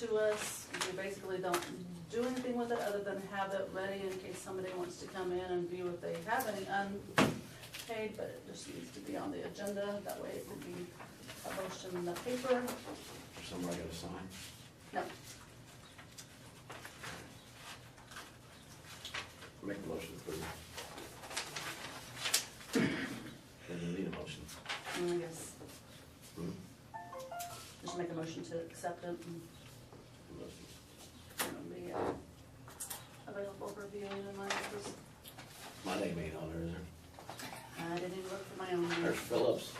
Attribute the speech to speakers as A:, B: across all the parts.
A: to us. We basically don't do anything with it other than have it ready in case somebody wants to come in and view if they have any unpaid, but it just needs to be on the agenda. That way it will be a motion in the paper.
B: Somebody got to sign?
A: No,
B: Make a motion, please. Doesn't need a motion.
A: I guess,
B: Hmm?
A: just make a motion to accept it and
B: Motion.
A: it'll be uh, available for viewing in my office.
B: My name ain't on there, is there?
A: I didn't even look for my own.
B: There's Phillips.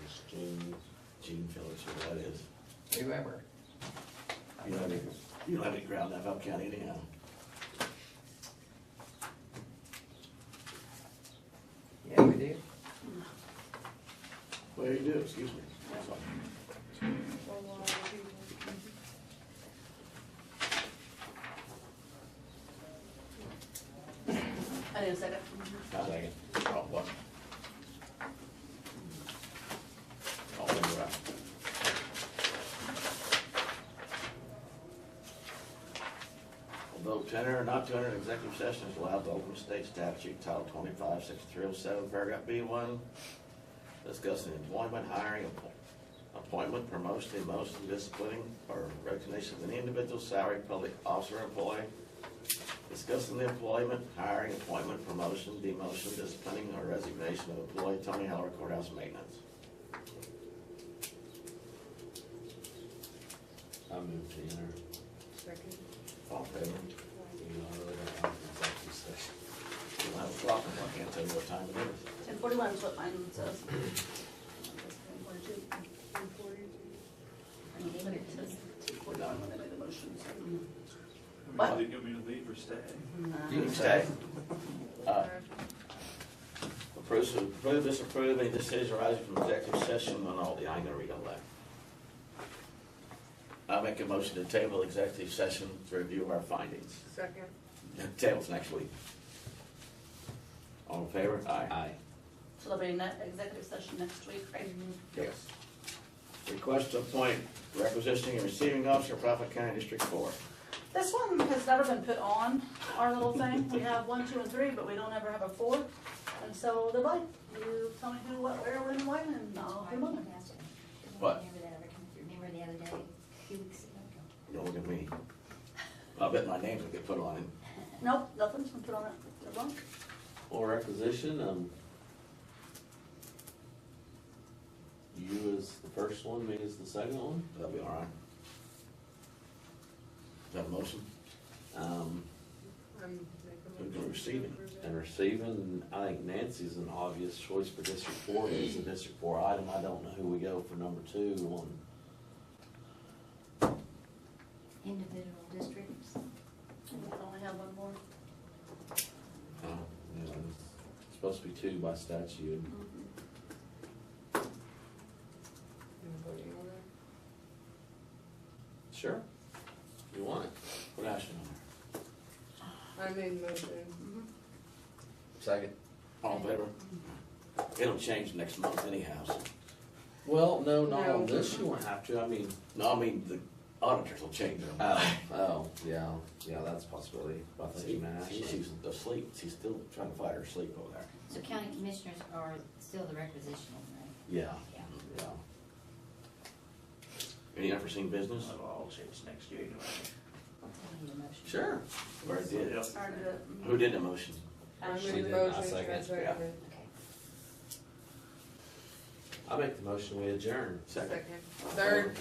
B: There's Gene, Gene Phillips, who that is.
C: Whoever.
B: You don't have any, you don't have any ground up up county anyhow.
C: Yeah, we do.
B: Well, you do, excuse me.
A: I need a second.
B: I second. Oh, what? All in the right. Although to enter or not to enter an executive session is allowed by Oklahoma State Statute Title twenty-five, section three oh seven, paragraph B one, discussing employment, hiring, appo- appointment, promotion, demotion, disciplining, or recognition of any individual salary, public officer, employee, discussing the employment, hiring, appointment, promotion, demotion, disciplining, or resignation of employee Tony Heller courthouse maintenance. I move to enter.
A: Second.
B: All in favor? Eleven o'clock, I can't tell you what time it is.
A: Ten forty-one is what mine says. Ten forty-two. Ten forty-two. But it says ten forty-one when I made the motion, so. What?
D: Did you want me to leave or stay?
B: You can stay. Uh,
A: Ah.
B: Approve, approve, disapprove any decision arising from executive session on all the, I ain't gonna read all that. I make a motion to table executive session to review our findings.
A: Second.
B: Tables next week. All in favor? Aye.
A: So there'll be a net executive session next week, right?
B: Yes. Request to appoint requisitioning and receiving officer, Prophet County District Four.
A: This one has never been put on our little thing. We have one, two, and three, but we don't ever have a four. And so they're blank. You tell me who, what, where, when, when, and I'll put 'em on.
B: What?
E: Remember that other, remember the other day, a few weeks ago?
B: Don't look at me. I bet my name will get put on it.
A: Nope, nothing's been put on it. They're blank.
F: Or requisition, um, you as the first one, me as the second one,
B: That'll be all right. Is that a motion?
F: um,
B: Who's gonna receive it?
F: and receiving, I think Nancy's an obvious choice for District Four, it's a District Four item, I don't know who we go for number two on.
E: Individual districts.
A: We only have one more.
B: Uh,
F: you know, it's Supposed to be two by statute,
A: Mm-hmm.
F: sure, you want it,
B: What else you know?
G: I made motion.
A: Mm-hmm.
B: Second. All in favor? It'll change next month anyhow. so-
F: well, no, not
G: No.
F: on this, you won't have to, I mean,
B: No, I mean, the auditors will change them.
F: oh, oh, yeah, yeah, that's a possibility, I think you
B: See,
F: may
B: see,
F: actually.
B: she's asleep, she's still trying to fight her sleep over there.
E: So county commissioners are still the requisitioning, right?
F: Yeah,
E: Yeah.
F: yeah.
B: Any unforeseen business?
D: That'll all change next year anyway.
E: I need a motion.
F: Sure.
B: Or it did?
D: Yeah.
A: Started it. Mm-hmm.
B: Who did the motion?
G: I
F: She
G: made
F: did, I
G: motion.
F: second,
G: Trent
B: yeah.
G: Redmond.
E: Okay.
F: I make the motion, we adjourn.
B: Second.
G: Third.